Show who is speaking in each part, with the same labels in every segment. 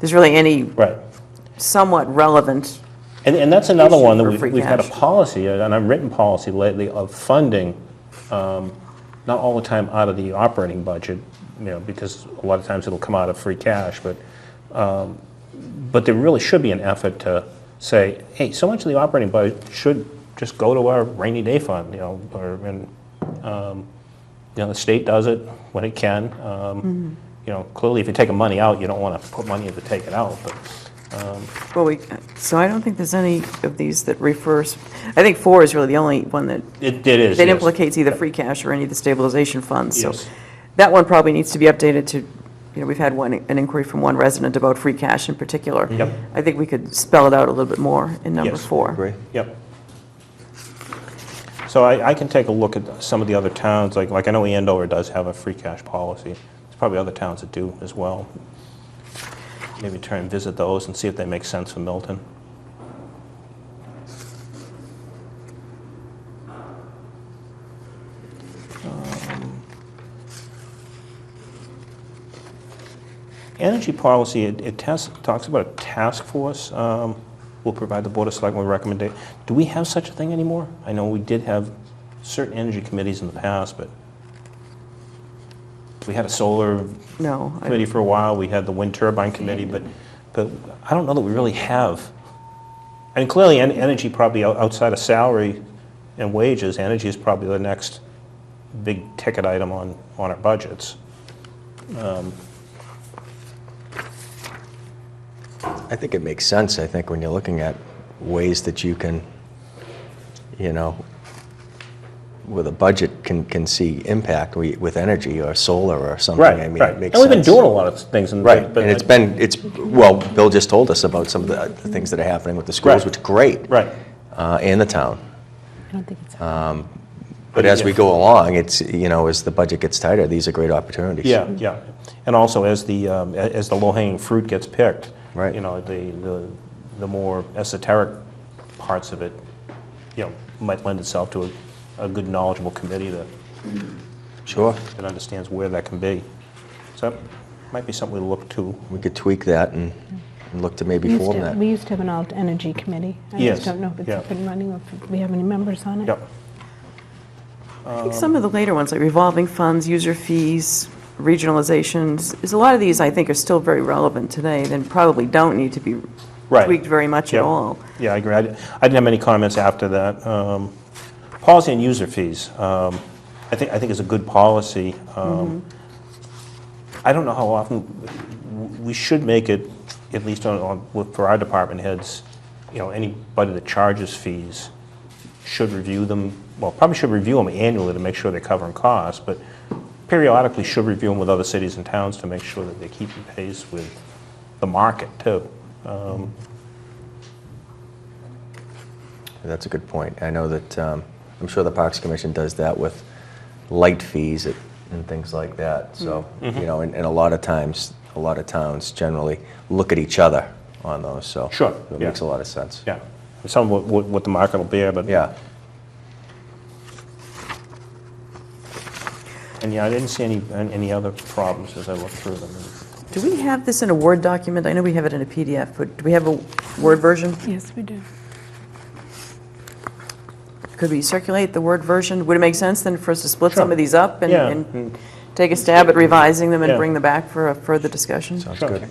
Speaker 1: there's really any
Speaker 2: Right.
Speaker 1: somewhat relevant,
Speaker 2: And, and that's another
Speaker 1: Issue
Speaker 2: one that
Speaker 1: for
Speaker 2: we've,
Speaker 1: free
Speaker 2: we've had a
Speaker 1: cash.
Speaker 2: policy, uh, an unwritten policy lately of funding, um, not all the time out of the operating budget, you know, because a lot of times it'll come out of free cash, but, um, but there really should be an effort to say, hey, so much of the operating budget should just go to our rainy day fund, you know, or, and, um, you know, the state does it when it can.
Speaker 1: Mm-hmm.
Speaker 2: Um, You know, clearly if you're taking money out, you don't want to put money in to take it out, but
Speaker 1: well, we, so I don't think there's any of these that refers, I think four is really the only one that,
Speaker 2: it, it is,
Speaker 1: that
Speaker 2: yes.
Speaker 1: implicates either free cash or any of the stabilization funds. So
Speaker 2: Yes.
Speaker 1: That one probably needs to be updated to, you know, we've had one, an inquiry from one resident about free cash in particular.
Speaker 2: Yep.
Speaker 1: I think we could spell it out a little bit more in number
Speaker 2: Yes.
Speaker 1: four.
Speaker 3: Agree.
Speaker 2: Yep. So I, I can take a look at some of the other towns, like, like I know Andover does have a free cash policy. There's probably other towns that do as well. Maybe try and visit those and see if they make sense for Milton. Um, Energy policy, it, it tas- talks about a task force, um, will provide the Board of Selectmen with recommendation. Do we have such a thing anymore? I know we did have certain energy committees in the past, but we had a solar
Speaker 1: No. I-
Speaker 2: committee for a while, we had the wind turbine committee, but, but I don't know that we really have. And clearly, en- energy probably out- outside of salary and wages, energy is probably the next big ticket item on, on our budgets.
Speaker 3: I think it makes sense, I think, when you're looking at ways that you can, you know, with a budget can, can see impact we- with energy or solar or something. I mean, it
Speaker 2: And
Speaker 3: makes
Speaker 2: we've been
Speaker 3: sense.
Speaker 2: doing a lot of things. and-
Speaker 3: Right,
Speaker 2: but-
Speaker 3: and it's been, it's, well, Bill just told us about some of the the things that are happening with the
Speaker 2: Right.
Speaker 3: schools, which is great.
Speaker 2: Right,
Speaker 3: uh, And the town.
Speaker 4: I don't think it's.
Speaker 3: But as we go along, it's, you know, as the budget gets tighter, these are great opportunities.
Speaker 2: yeah, yeah. And also, as the, um, a- as the low-hanging fruit gets picked.
Speaker 3: Right.
Speaker 2: You know, the, the, the more esoteric parts of it, you know, might lend itself to a, a good knowledgeable committee that
Speaker 3: Sure.
Speaker 2: that understands where that can be. So that might be something we look to.
Speaker 3: We could tweak that and and look to
Speaker 4: We
Speaker 3: maybe
Speaker 4: used
Speaker 3: form
Speaker 4: to,
Speaker 3: that.
Speaker 4: we used to have an alt energy committee. I
Speaker 2: Yes,
Speaker 4: just don't know if it's
Speaker 2: yeah.
Speaker 4: up and running or if we have any members on it.
Speaker 2: Yep.
Speaker 1: I think some of the later ones, like revolving funds, user fees, regionalizations, is a lot of these, I think, are still very relevant today, then probably don't need to be
Speaker 2: Right.
Speaker 1: tweaked very much at
Speaker 2: Yep.
Speaker 1: all.
Speaker 2: Yeah, I agree. I di- I didn't have any comments after that. Um, Policy on user fees, um, I think, I think is a good policy.
Speaker 1: Mm-hmm.
Speaker 2: Um, I don't know how often, w- we should make it, at least on- on, with- for our department heads, you know, anybody that charges fees should review them, well, probably should review them annually to make sure they're covering costs, but periodically should review them with other cities and towns to make sure that they're keeping pace with the market, too.
Speaker 3: That's a good point. I know that, um, I'm sure the Parks Commission does that with light fees it- and things like that. So,
Speaker 2: Mm-hmm.
Speaker 3: you know, and and a lot of times, a lot of towns generally look at each other on those, so.
Speaker 2: Sure,
Speaker 3: It
Speaker 2: yeah.
Speaker 3: makes a lot of sense.
Speaker 2: Yeah, some of what, what the market will bear, but.
Speaker 3: Yeah.
Speaker 2: And yeah, I didn't see any, an- any other problems as I looked through them.
Speaker 1: Do we have this in a Word document? I know we have it in a PDF, but do we have a Word version?
Speaker 4: Yes, we do.
Speaker 1: Could we circulate the Word version? Would it make sense then for us to split some
Speaker 2: Sure.
Speaker 1: of these up and-
Speaker 2: Yeah.
Speaker 1: and take a stab at revising them and
Speaker 2: Yeah.
Speaker 1: bring them back for a further discussion?
Speaker 3: Sounds
Speaker 2: Sure.
Speaker 3: good.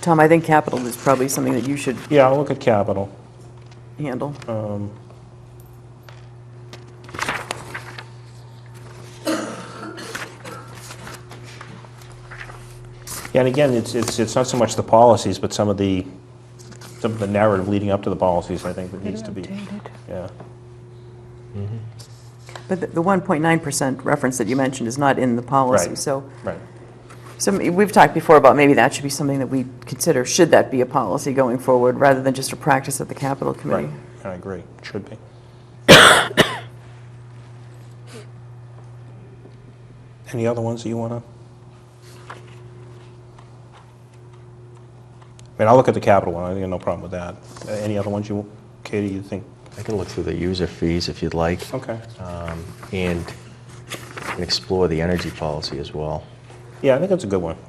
Speaker 1: Tom, I think capital is probably something that you should
Speaker 2: Yeah, I'll look at capital.
Speaker 1: handle.
Speaker 2: Oh. Yeah, and again, it's, it's, it's not so much the policies, but some of the, some of the narrative leading up to the policies, I think, that needs to be.
Speaker 4: Updated.
Speaker 2: Yeah,
Speaker 1: But the- the 1.9% reference that you mentioned is not in the policy,
Speaker 2: Right.
Speaker 1: so
Speaker 2: right.
Speaker 1: So m- we've talked before about maybe that should be something that we consider, should that be a policy going forward, rather than just a practice at the capital
Speaker 2: Right,
Speaker 1: committee?
Speaker 2: I agree, should be. Any other ones that you want to? I mean, I'll look at the capital one, I think no problem with that. Uh, Any other ones you, Katie, you think? Uh,
Speaker 3: I can look through the user fees if you'd like.
Speaker 2: Oh. Okay.
Speaker 3: um, And and explore the energy policy as well.
Speaker 2: Yeah, I think that's a good one.